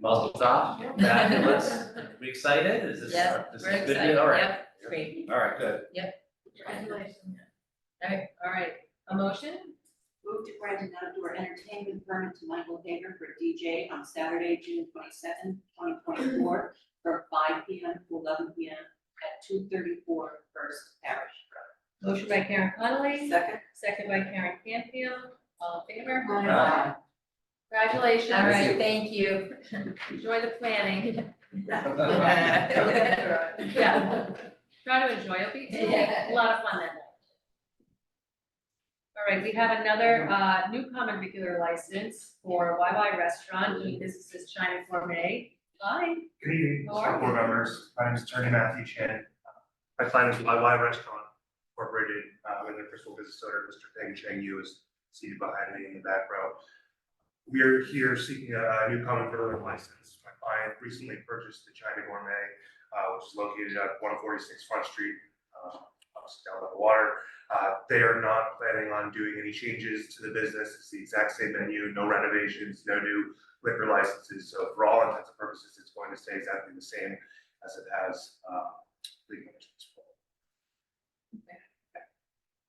Muzzle off, back and let's, we excited? Is this, Yeah, this We're is good, excited, news? all right, yep, great, all right, good. congratulations. All right, all right, a motion, Move to grant an outdoor entertainment permit to Michael Hager for DJ on Saturday, June twenty seventh, twenty twenty four, from five P M to eleven P M at two thirty four First Parish motion by Karen Road. Connolly, Second. second by Karen Canfield, all in favor? Aye. Congratulations. All right, you. thank you. Enjoy the planning, Yeah. yeah, try to enjoy, it'll be, it'll be Yeah. a lot of fun that night. All right, we have another, uh, new common regular license for YY Restaurant, doing business as China Gourmet. Hi, Good evening, How are school board you? members. My name is attorney Matthew Chan. My client is YY Restaurant Incorporated, uh, with their principal business owner, Mr. Peng Cheng Yu is seated behind me in the back row. We are here seeking a a new common villain license. My client recently purchased the China Gourmet, uh, which is located at one forty-six Front Street, uh, obviously down by the water. Uh, they are not planning on doing any changes to the business. It's the exact same menu, no renovations, no new liquor licenses, so for all intents and purposes, it's going to stay exactly the same as it has, uh, legal merchants.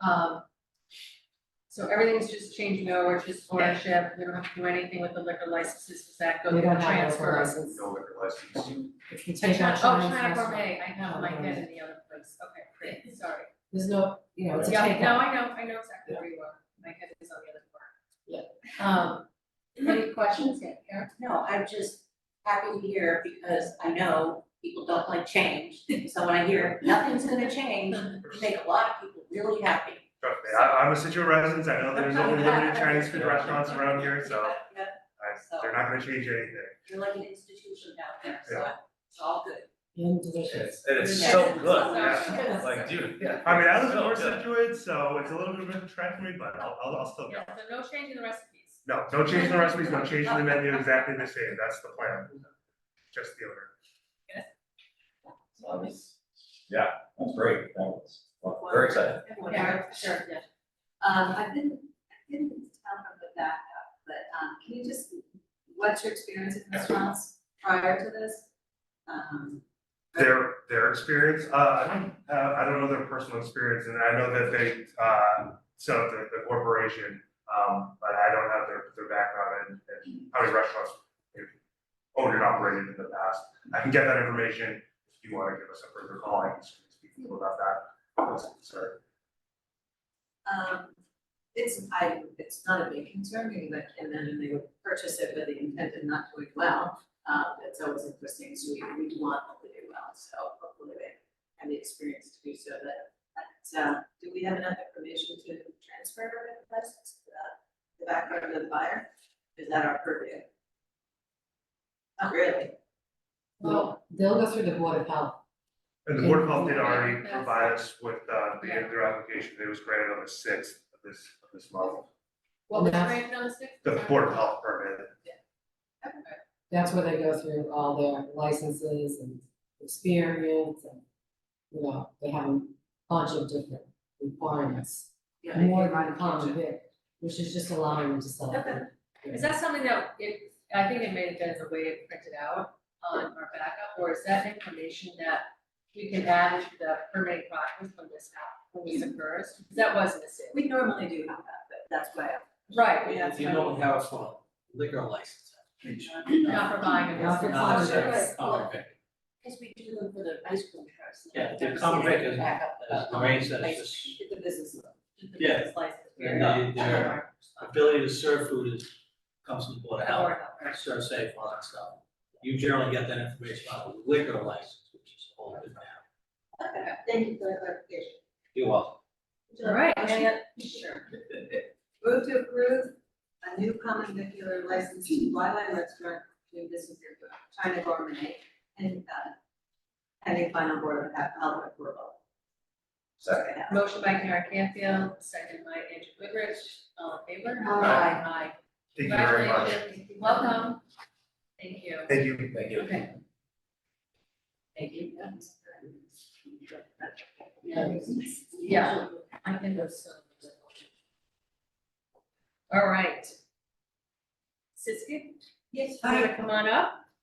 Um, so everything's just changing over, just ownership, we don't have to do anything with the liquor licenses, does that go We through don't have transfer? liquor license. No liquor license. If you I take out tried- Oh, China's China restaurant, Gourmet, I Oh, have my head in the other place, okay, great, sorry. there's no, you know, it's a Yeah, takeout. no, I know, I know exactly where you are, my head is on the other part. Yeah. Um, any questions yet, Karen? No, I'm just happy to hear because I know people don't like change, so when I hear nothing's gonna change, you make a lot of people really happy. Trust me, I, I'm a Situate resident, I know there's only limited Chinese food restaurants around here, so Yeah, I, they're not gonna change anything. You're like an institution down there, so it's all good. And delicious. It's- And it's so good, Sorry. yeah. like, dude, yeah. I mean, I live in So North good. Situate, so it's a little bit of a trek for me, but I'll, I'll, I'll still go. Yeah, so no change in the recipes. No, no change in the recipes, no change in the menu, exactly the same, that's the plan. Just the owner. Yeah, that's great, that was, very excited. Yeah, sure. Yeah. Um, I've been, I've been to town from the back up, but, um, can you just, what's your experience in restaurants prior to this? Um, their their experience. Uh, I don't uh, I don't know their personal experience, and I know that they uh, set up the, the corporation, um, but I don't have their their background and, and how many restaurants they've owned and operated in the past. I can get that information if you want to give us a further call. I can speak to you about that. Sorry. um, it's, I, it's not a big concern, because I can imagine they would purchase it with the intent of not doing well. Uh, it's always interesting, so we, we want them to do well, so hopefully they have the experience to do so, but, but, uh, do we have enough information to transfer the license to the, the background of the buyer? Is that our purview? Not really. Well, they'll go through the board of health. And the Board of Health did already provide us with uh, the their application. It was granted on the sixth of this of this month. What was No. granted on the sixth? The Board of Health permit. That's where they go through all their licenses and experience and, you know, they have a bunch of different requirements. Yeah, if More you run than a common kitchen. vic, which is just allowing them to sell. it. Okay. Is that something that, if, I think it may have been the way it printed out on our backup, or is that information that we can add into the permitting process when this app, when this occurs? 'Cause That wasn't a sin. We normally do have that, but that's why. I- Right, Yeah, that's if you don't have a liquor license application. not for buying and Not for not buying. for service. Oh, okay. Cause we do them for the ice cream trucks. Yeah, the common vic is- Back up the- As Uh, Lorraine says, it's The business. loan. Yeah. and they- their ability to serve food is, comes from the board of health, serve safe, all that stuff. You generally get that information on a liquor license, which is a whole different matter. Okay, Thank you for the clarification. You're welcome. All right, any other- Sure. Move to approve a new common vicular license to Wildlife Restaurant, doing business here for China Gourmet, and, uh, pending final board of health health approval. Second. motion by Karen Canfield, second by Andrew Goodrich, all in favor? Aye. Aye. Thank you very much. Congratulations. Welcome. Thank you. Thank you. Thank you. Okay. Thank you. Yeah, I can go so. All right. Siski, Yes, you wanna come on up?